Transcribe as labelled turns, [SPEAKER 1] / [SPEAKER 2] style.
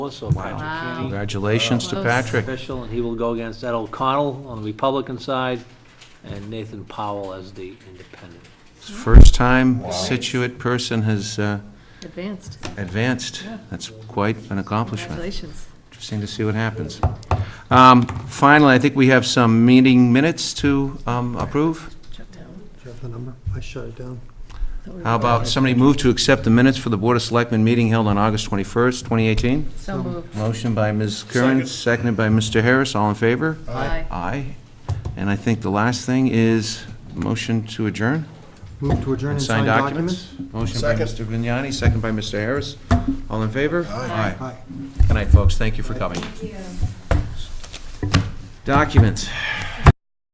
[SPEAKER 1] Also, Patrick Kenny.
[SPEAKER 2] Congratulations to
[SPEAKER 3] Close.
[SPEAKER 2] Patrick.
[SPEAKER 1] Official, and he will go against Ed O'Connell on the Republican side, and Nathan Powell as the independent.
[SPEAKER 2] First time Situate person has uh,
[SPEAKER 3] Advanced.
[SPEAKER 2] advanced. That's quite an accomplishment.
[SPEAKER 3] Congratulations.
[SPEAKER 2] Interesting to see what happens. Um, Finally, I think we have some meeting minutes to um, approve.
[SPEAKER 3] Chuck down.
[SPEAKER 4] Do you have the number? I shut it down.
[SPEAKER 2] How about somebody move to accept the minutes for the Board of Selectmen meeting held on August 21st, 2018?
[SPEAKER 3] So moved.
[SPEAKER 2] Motion by Ms. Curran, seconded by Mr. Harris. All in favor?
[SPEAKER 3] Aye.
[SPEAKER 2] Aye. And I think the last thing is motion to adjourn?
[SPEAKER 4] Move to adjourn and sign documents?
[SPEAKER 2] Motion by Mr. Vignani, second by Mr. Harris. All in favor? Aye.
[SPEAKER 4] Aye.
[SPEAKER 2] Good night, folks. Thank you for coming. Documents.